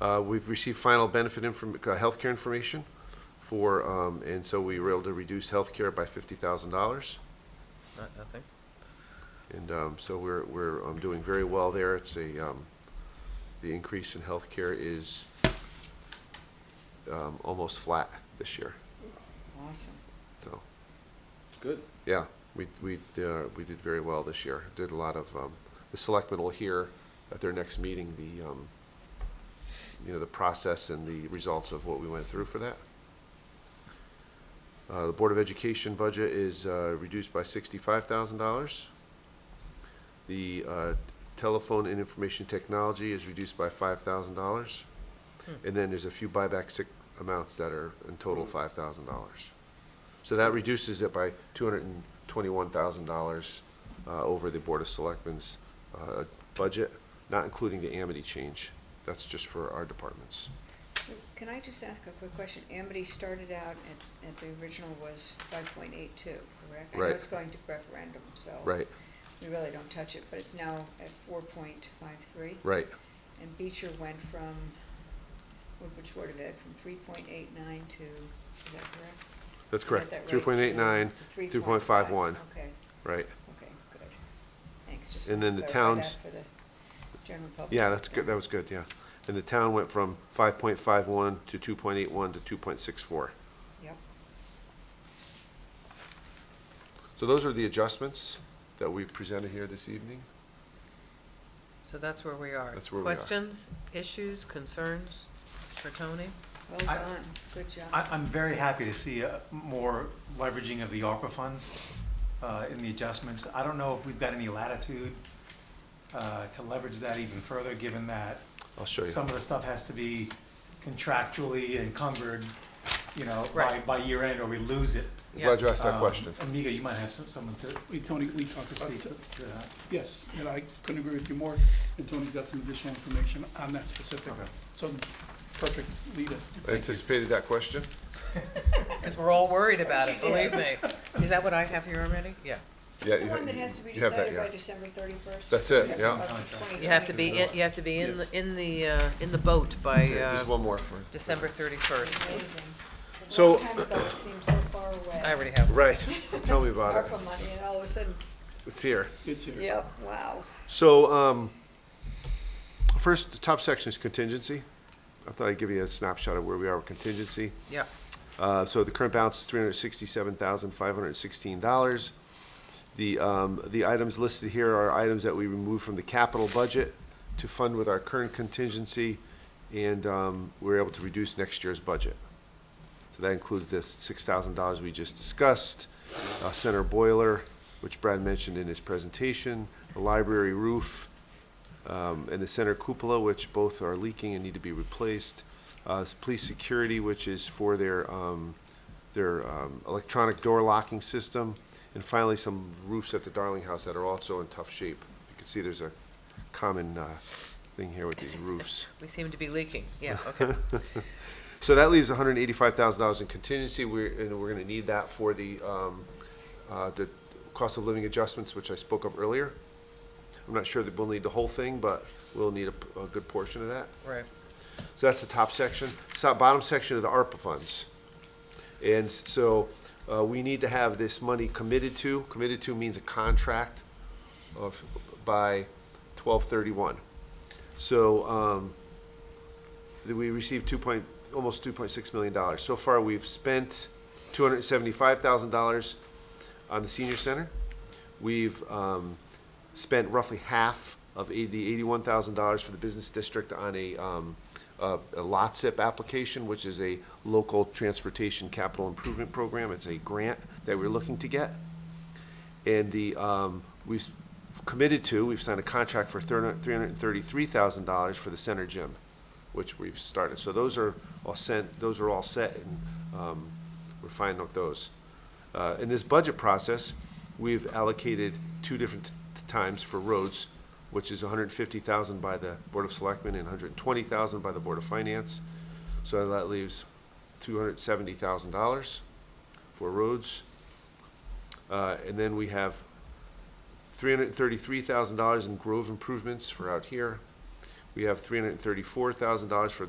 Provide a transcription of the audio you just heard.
Uh, We've received final benefit inform, uh, healthcare information for, um, and so we were able to reduce healthcare by fifty thousand dollars. Not- Nothing? And um, so we're, we're um, doing very well there. It's a, um, the increase in healthcare is um, almost flat this year, Awesome. so. Good. Yeah, we, we, uh, we did very well this year. Did a lot of, um, the selectmen will hear at their next meeting, the, um, you know, the process and the results of what we went through for that. Uh, the Board of Education budget is, uh, reduced by sixty-five thousand dollars. The, uh, telephone and information technology is reduced by five thousand dollars. And then there's a few buyback sick amounts that are in total five thousand dollars. So that reduces it by two hundred and twenty-one thousand dollars uh, over the Board of Selectmen's uh, budget, not including the Amity change. That's just for our departments. So can I just ask a quick question? Amity started out at, at the original was five point eight two, correct? I Right. know it's going to referendum, so. Right, We really don't touch it, but it's now at four point five three. right, And Beecher went from, which Board of Ed, from three point eight nine to, is that correct? that's Did I get correct. that right? Three point eight nine, To three point five one, 3.51. Okay, right. okay, good. Thanks, just. And then the wanted to clarify towns- that For the general public. Yeah, that's good, that was good, yeah. And the town went from five point five one to two point eight one to two point six four. Yep. So those are the adjustments that we presented here this evening. So that's where we are. That's where we are. Questions, issues, concerns for Tony? Well I- done, good job. I, I'm very happy to see uh, more leveraging of the ARPA funds uh, in the adjustments. I don't know if we've got any latitude uh, to leverage that even further, given that I'll show you. some of the stuff has to be contractually encumbered, you know, by, Right. by year end, or we lose it. I'm Glad you asked that Um, question. Amiga, you might have some- someone to Wait, Tony, we talked about speak that. to that. Yes, and I couldn't agree with you more, and Tony's got some additional information on that specific. Okay. So, perfect leader. I Anticipated that question? Because we're all worried about it, believe me. Is that what I have here already? Yeah. Is Yeah, this the you- one that has to be you have that, decided by yeah. December thirty-first? That's it, yeah. You have to be, in you have to be in, the in the, uh, in the boat by There's uh, one more for. December thirty-first. Amazing. A So- long time ago, it seems so far away. I already have. Right, tell me about it. ARPA money, and all of a sudden, It's here. It's here. yep, wow. So, um, first, the top section is contingency. I thought I'd give you a snapshot of where we are with contingency. Yeah. Uh, so the current balance is three hundred sixty-seven thousand five hundred sixteen dollars. The, um, the items listed here are items that we removed from the capital budget to fund with our current contingency, and, um, we're able to reduce next year's budget. So that includes this six thousand dollars we just discussed, uh, center boiler, which Brad mentioned in his presentation, the library roof, um, and the center cupola, which both are leaking and need to be replaced. Uh, s- police security, which is for their, um, their, um, electronic door locking system. And finally, some roofs at the Darling House that are also in tough shape. You can see there's a common, uh, thing here with these roofs. We seem to be leaking. Yeah, okay. So that leaves hundred and eighty-five thousand dollars in contingency, we're, and we're gonna need that for the, um, uh, the cost of living adjustments, which I spoke of earlier. I'm not sure that we'll need the whole thing, but we'll need a, p- a good portion of that. Right. So that's the top section. So bottom section of the ARPA funds. And so, uh, we need to have this money committed to, committed to means a contract of, by twelve thirty-one. So, um, that we received two point, almost two point six million dollars. So far, we've spent two hundred and seventy-five thousand dollars on the senior center. We've, um, spent roughly half of eighty, the eighty-one thousand dollars for the business district on a, um, a, a lot zip application, which is a local transportation capital improvement program. It's a grant that we're looking to get. And the, um, we've committed to, we've signed a contract for three hundred and thirty-three thousand dollars for the center gym, which we've started. So those are all sent, those are all set and, um, we're fine with those. Uh, in this budget process, we've allocated two different t- times for roads, which is hundred and fifty thousand by the Board of Selectmen and hundred and twenty thousand by the Board of Finance. So that leaves two hundred and seventy thousand dollars for roads. Uh, and then we have three hundred and thirty-three thousand dollars in grove improvements for out here. We have three hundred and thirty-four thousand dollars for the